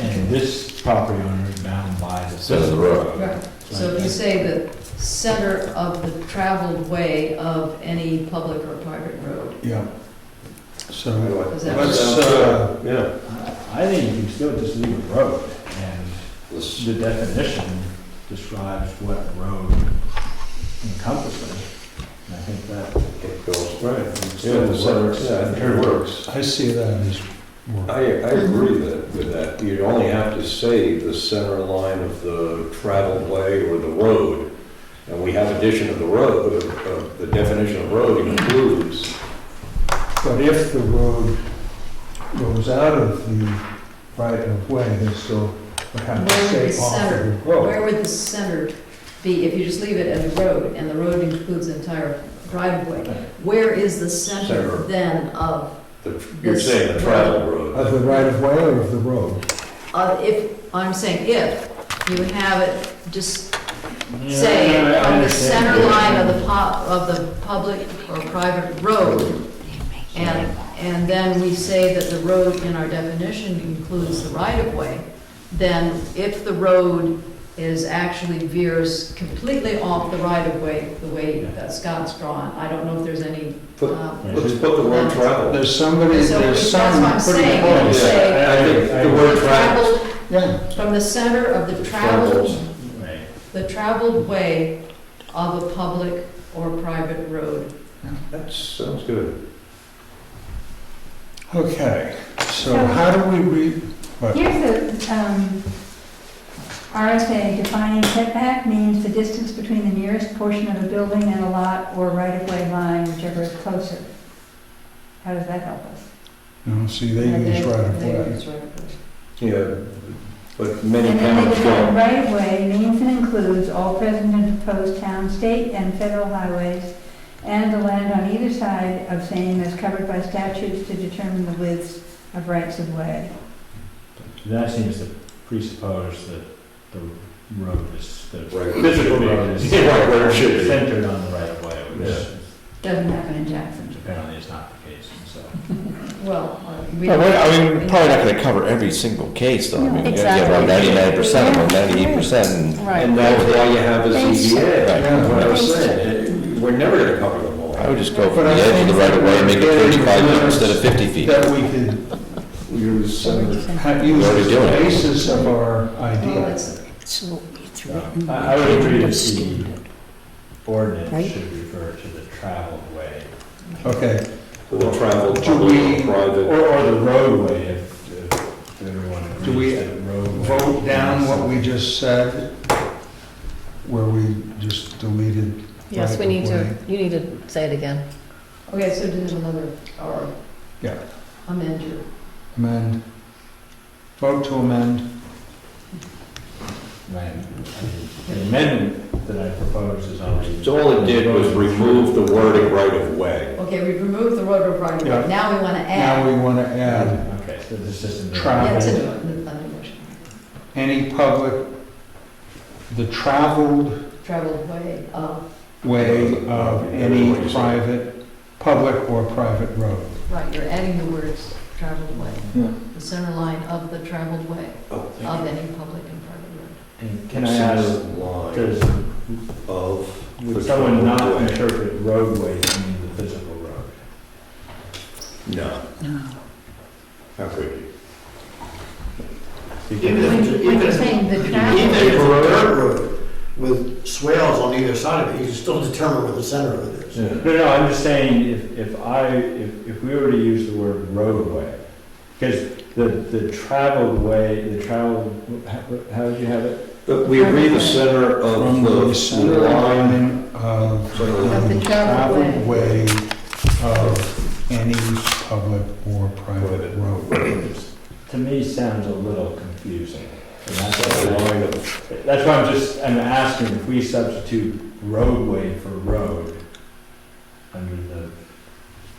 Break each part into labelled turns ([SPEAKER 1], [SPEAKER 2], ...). [SPEAKER 1] and this property owner is bound by the.
[SPEAKER 2] Center of the road.
[SPEAKER 3] Right, so if you say the center of the traveled way of any public or private road,
[SPEAKER 4] Yeah. So
[SPEAKER 3] is that?
[SPEAKER 4] let's, uh,
[SPEAKER 2] Yeah.
[SPEAKER 1] I I think you can still just leave a road, and
[SPEAKER 2] Let's-
[SPEAKER 1] the definition describes what a road encompasses. And I think that.
[SPEAKER 2] It goes.
[SPEAKER 1] Right.
[SPEAKER 2] Yeah, the center, yeah, I think it works.
[SPEAKER 4] I see that as
[SPEAKER 2] I,
[SPEAKER 4] work.
[SPEAKER 2] I agree that, with that. You'd only have to say the center line of the traveled way or the road. And we have addition of the road, of- of the definition of road includes.
[SPEAKER 4] But if the road goes out of the right of way, then still would have to
[SPEAKER 3] Where would
[SPEAKER 4] stay
[SPEAKER 3] the
[SPEAKER 4] off of
[SPEAKER 3] center-
[SPEAKER 4] the road.
[SPEAKER 3] Where would the center be if you just leave it as a road and the road includes the entire driveway? Where is the
[SPEAKER 2] Center.
[SPEAKER 3] center then of,
[SPEAKER 2] the- You're saying the traveled road.
[SPEAKER 4] Of the right of way or of the road?
[SPEAKER 3] of if, I'm saying if, you have it just
[SPEAKER 1] Yeah,
[SPEAKER 3] say
[SPEAKER 1] I- I
[SPEAKER 3] on the
[SPEAKER 1] understand.
[SPEAKER 3] center line of the pub, of the public or private road. And, and then we say that the road in our definition includes the right of way, then if the road is actually veers completely off the right of way, the way that Scott's drawn, I don't know if there's any,
[SPEAKER 2] Put-
[SPEAKER 3] um,
[SPEAKER 2] Let's put the word traveled.
[SPEAKER 4] There's somebody,
[SPEAKER 3] So
[SPEAKER 4] there's
[SPEAKER 3] that's what I'm
[SPEAKER 4] some pretty
[SPEAKER 3] saying.
[SPEAKER 2] Yeah,
[SPEAKER 3] You
[SPEAKER 4] close.
[SPEAKER 3] say-
[SPEAKER 2] I think the word traveled.
[SPEAKER 3] traveled,
[SPEAKER 4] Yeah,
[SPEAKER 3] from the center of the traveled,
[SPEAKER 1] Right.
[SPEAKER 3] the traveled way of a public or private road.
[SPEAKER 2] That sounds good.
[SPEAKER 4] okay. So how do we re,
[SPEAKER 5] Here's the um, RSA defining setback means the distance between the nearest portion of a building and a lot or right-of-way line, whichever is closer. How does that help us?
[SPEAKER 4] no, see, they
[SPEAKER 3] And
[SPEAKER 4] use
[SPEAKER 3] then-
[SPEAKER 4] right of
[SPEAKER 3] they
[SPEAKER 4] way.
[SPEAKER 3] use right of way.
[SPEAKER 2] Yeah, but many
[SPEAKER 5] And then they
[SPEAKER 2] towns
[SPEAKER 5] define
[SPEAKER 2] don't.
[SPEAKER 5] right-of-way means and includes all present and proposed town, state, and federal highways, and the land on either side of same is covered by statutes to determine the widths of rights-of-way.
[SPEAKER 1] That seems to presuppose that the road is, the
[SPEAKER 2] Right.
[SPEAKER 1] physical road is
[SPEAKER 2] Yeah, right where it should be.
[SPEAKER 1] centered on the right of way, which
[SPEAKER 2] Yeah.
[SPEAKER 5] Doesn't happen in Jackson.
[SPEAKER 1] apparently is not the case, and so.
[SPEAKER 3] Well, uh, we.
[SPEAKER 6] Yeah, well, I mean, we're probably not gonna cover every single case, though. I mean, you gotta get around
[SPEAKER 7] Exactly.
[SPEAKER 6] ninety-nine percent, or ninety-eight percent.
[SPEAKER 7] Right.
[SPEAKER 2] And that's why you have a
[SPEAKER 7] Thanks.
[SPEAKER 2] ZBA,
[SPEAKER 6] Right.
[SPEAKER 2] what I was
[SPEAKER 7] Thanks.
[SPEAKER 2] saying, eh, we're never gonna cover them all.
[SPEAKER 6] I would just go from the edge of the right of way, and make it thirty-five feet instead of fifty feet.
[SPEAKER 4] That we could
[SPEAKER 2] You're saying-
[SPEAKER 4] have used
[SPEAKER 6] already
[SPEAKER 4] as the
[SPEAKER 6] doing it.
[SPEAKER 4] basis of our
[SPEAKER 3] Well,
[SPEAKER 4] idea.
[SPEAKER 3] it's-
[SPEAKER 7] So it's
[SPEAKER 1] Yeah.
[SPEAKER 7] written.
[SPEAKER 1] I I would agree that the
[SPEAKER 7] Understand
[SPEAKER 1] ordinance
[SPEAKER 7] Right.
[SPEAKER 1] should refer to the traveled way,
[SPEAKER 4] Okay,
[SPEAKER 2] The traveled,
[SPEAKER 4] Do
[SPEAKER 2] public,
[SPEAKER 4] we-
[SPEAKER 2] or private.
[SPEAKER 1] or, or the roadway, if, if everyone
[SPEAKER 4] Do we
[SPEAKER 1] agrees that roadway.
[SPEAKER 4] vote down what we
[SPEAKER 1] is-
[SPEAKER 4] just said, where we just deleted.
[SPEAKER 7] Yes, we
[SPEAKER 4] right of
[SPEAKER 7] need to,
[SPEAKER 4] way.
[SPEAKER 7] you need to say it again.
[SPEAKER 3] Okay, so do another, or.
[SPEAKER 4] Yeah.
[SPEAKER 3] Amend your,
[SPEAKER 4] Amend. Vote to amend.
[SPEAKER 1] Right. I mean, The amendment that I propose is already.
[SPEAKER 2] So all it did was remove the wording right of way.
[SPEAKER 3] okay, we've removed the road of right of
[SPEAKER 4] Yeah.
[SPEAKER 3] way, now we want to
[SPEAKER 4] Now
[SPEAKER 3] add.
[SPEAKER 4] we want to add
[SPEAKER 1] Okay, so this isn't.
[SPEAKER 4] Travel.
[SPEAKER 3] Yeah, it's a, a new motion,
[SPEAKER 4] any public, the traveled
[SPEAKER 3] traveled way of,
[SPEAKER 4] way of any private, public or private road.
[SPEAKER 3] right, you're adding the words traveled way.
[SPEAKER 4] Yeah.
[SPEAKER 3] The center line of the traveled way of any public and private road.
[SPEAKER 1] And Can I ask,
[SPEAKER 2] Line
[SPEAKER 1] does
[SPEAKER 2] of.
[SPEAKER 1] Would
[SPEAKER 2] the
[SPEAKER 1] someone not
[SPEAKER 2] traveled way.
[SPEAKER 1] interpret roadway to mean the physical road?
[SPEAKER 2] No, how could you?
[SPEAKER 3] When you- when you're saying the
[SPEAKER 8] Even
[SPEAKER 3] traveled,
[SPEAKER 8] if it's a dirt road with swales on either side of it, you can still determine where the center of it is.
[SPEAKER 1] No, no, I'm just saying, if, if I, if, if we were to use the word roadway, because the, the traveled way, the traveled, how, how would you have it?
[SPEAKER 2] But we agree the center
[SPEAKER 4] From
[SPEAKER 2] of
[SPEAKER 4] the center
[SPEAKER 2] the line.
[SPEAKER 4] line of
[SPEAKER 2] Sort of-
[SPEAKER 4] um,
[SPEAKER 5] Of the traveled way.
[SPEAKER 4] traveled way of any public or private
[SPEAKER 2] Private.
[SPEAKER 4] road.
[SPEAKER 1] To me, sounds a little confusing. And that's
[SPEAKER 2] the
[SPEAKER 1] why,
[SPEAKER 2] Line of
[SPEAKER 1] I- that's why I'm just, I'm asking if we substitute roadway for road under the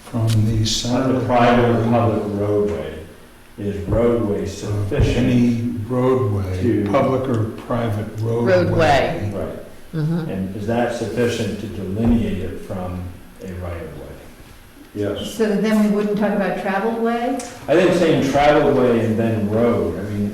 [SPEAKER 4] From the
[SPEAKER 1] On
[SPEAKER 4] center.
[SPEAKER 1] the private or public roadway, is roadway
[SPEAKER 4] of
[SPEAKER 1] sufficient?
[SPEAKER 4] Any roadway,
[SPEAKER 1] To-
[SPEAKER 4] public or private roadway.
[SPEAKER 7] Roadway.
[SPEAKER 1] Right,
[SPEAKER 7] Mhm.
[SPEAKER 1] and is that sufficient to delineate it from a right of way?
[SPEAKER 2] Yes.
[SPEAKER 5] So that then we wouldn't talk about traveled way?
[SPEAKER 1] I think saying traveled way and then road, I mean,